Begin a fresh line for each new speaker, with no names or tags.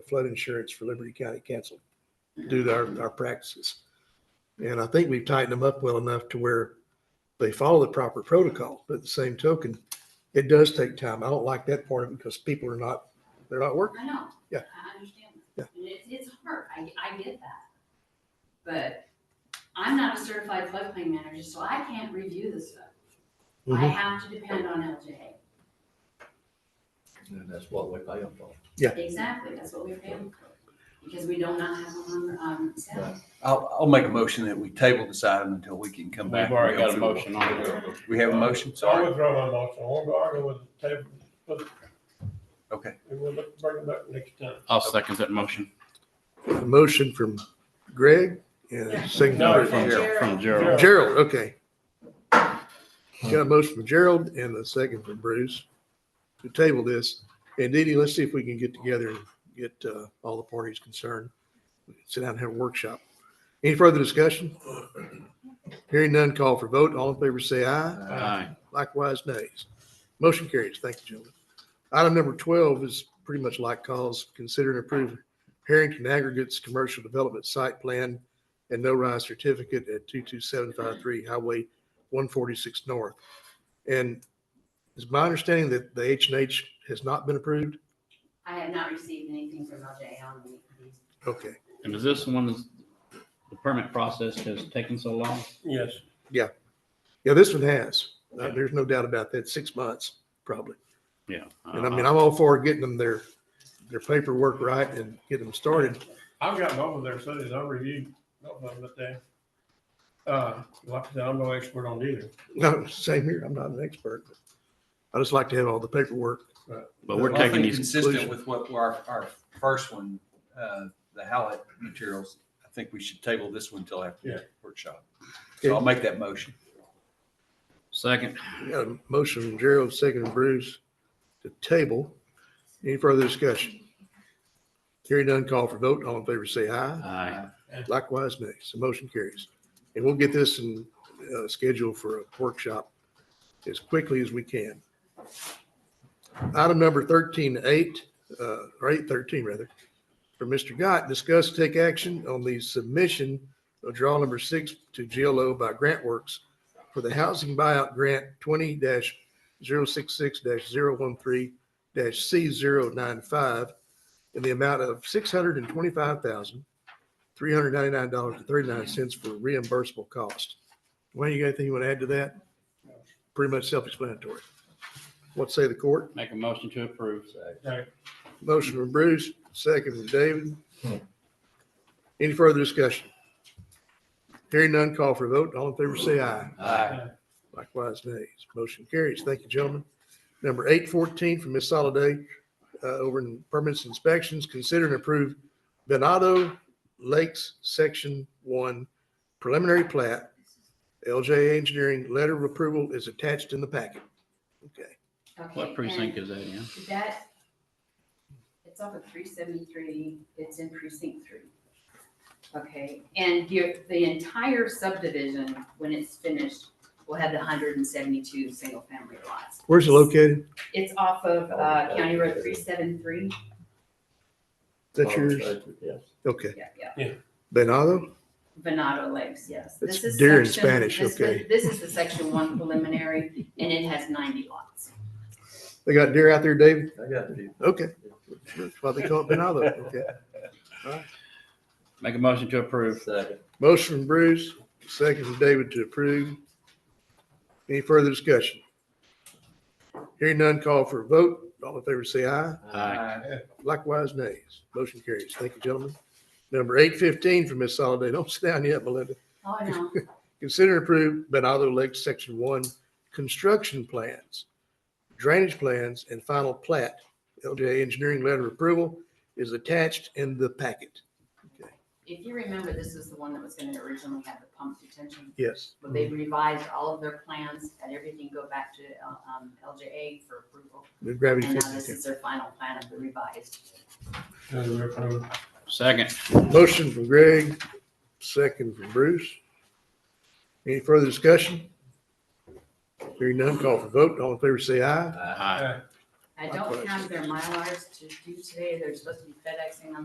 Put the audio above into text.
flood insurance for Liberty County Council due to our, our practices. And I think we've tightened them up well enough to where they follow the proper protocol, but at the same token, it does take time. I don't like that part of it because people are not, they're not working.
I know.
Yeah.
I understand.
Yeah.
And it's, it's hard. I, I get that. But I'm not a certified floodplain manager, so I can't review this stuff. I
Mhm.
have to depend on LJA.
And that's what we pay them for.
Exactly. That's what we're paying for. Because we do not have one on, um, staff.
I'll, I'll make a motion that we table this item until we can come
We've
back. and
already
go
got a
through.
motion on it.
We have a motion,
I
sorry.
withdraw my motion. I won't go argue with the table, but
Okay.
and we'll look- bring it back next time.
I'll second that motion.
A motion from Greg and a second
No,
from
Gerald.
From Gerald.
Gerald, okay. Got a motion from Gerald and a second from Bruce to table this. And Didi, let's see if we can get together and get uh, all the parties concerned. Sit down and have a workshop. Any further discussion? Hearing none, call for vote. All in favor, say aye.
Aye.
Likewise, nays. Motion carries. Thank you, gentlemen. Item number 12 is pretty much like calls. Consider and approve Harrington Aggregates Commercial Development Site Plan and no rise certificate at 22753 Highway 146 North. And it's my understanding that the H and H has not been approved?
I have not received anything from LJA on the- these.
Okay,
And is this one, the permit process has taken so long?
Yes.
yeah, this one has. Uh, There's no doubt about that, six months probably.
Yeah.
And I
Uh-huh.
mean, I'm all for getting them their, their paperwork right and getting them started.
I've gotten over there, so I reviewed, no, but they, uh, like I said, I'm no expert on either.
No, same here, I'm not an expert. but I just like to have all the paperwork.
But we're
Well, I
taking
think
these,
consistent
conclusion-
with what our, our first one, uh, the Hallett materials, I think we should table this one until after
Yeah.
the workshop. So I'll make that motion.
second,
We Got a motion from Gerald, second from Bruce to table. Any further discussion? Hearing none, call for vote. All in favor, say aye.
aye.
Likewise, nay. So motion carries. And we'll get this in, uh, schedule for a workshop as quickly as we can. Item number thirteen eight, uh, or eight thirteen rather, for Mr. Gott, discuss take action on the submission of draw number six to GLO by GrantWorks for the housing buyout grant twenty 66 13 C 95 in the amount of six hundred and twenty-five thousand, three hundred ninety-nine dollars and thirty-nine cents for reimbursable cost. Wayne, you got anything you want to add to that? Pretty much self-explanatory. What say the court?
Make a motion to approve.
Motion from Bruce, second from David. Any further discussion? Hearing none, call for a vote. All in favor, say aye.
Aye.
Uh,
Likewise, nays. Motion carries. Thank you, gentlemen. Number eight fourteen from Ms. Soliday, uh, over in permits inspections, consider and approve Venado Lakes Section One preliminary plat. LJ Engineering letter of approval is attached in the packet. Okay.
Okay,
What precinct
and
is that in?
That, it's off of three seventy-three, it's in precinct three. Okay, and your, the entire subdivision, when it's finished, will have the hundred and seventy-two single-family lots.
Where's it located?
It's off of,
Oh,
uh, County Road three seven-three,
Is that yours?
Yes.
Okay.
yeah, yeah,
Venado?
Venado Lakes, yes. This
It's
is
deer in
section-
Spanish,
this was-
okay.
This is the section one preliminary, and it has ninety lots.
They got deer out there, David?
I got it.
Okay. That's why they call it Venado. Okay.
Make a motion to approve.
Second.
Motion from Bruce, second from David to approve. Any further discussion? Hearing none, call for a vote. All in favor, say aye.
Aye.
Likewise, nays. Motion carries. Thank you, gentlemen. Number eight fifteen from Ms. Soliday. Don't sit down yet, Melinda.
Oh, I know.
Consider and approve Benado Lake Section One construction plans, drainage plans, and final plat. LJ Engineering Letter of Approval is attached in the packet.
If you remember, this is the one that was gonna originally have the pump detention
Yes.
Well, they revised all of their plans, had everything go back to um, LJA for approval.
The gravity.
And now
fits
this
in.
is their final plan of the revised.
Second,
Motion from Greg, second from Bruce. Any further discussion? Hearing none, call for vote. All in favor, say aye.
aye.
I I
That's what
don't
I
have
said.
their milars to do today. They're supposed to be FedExing them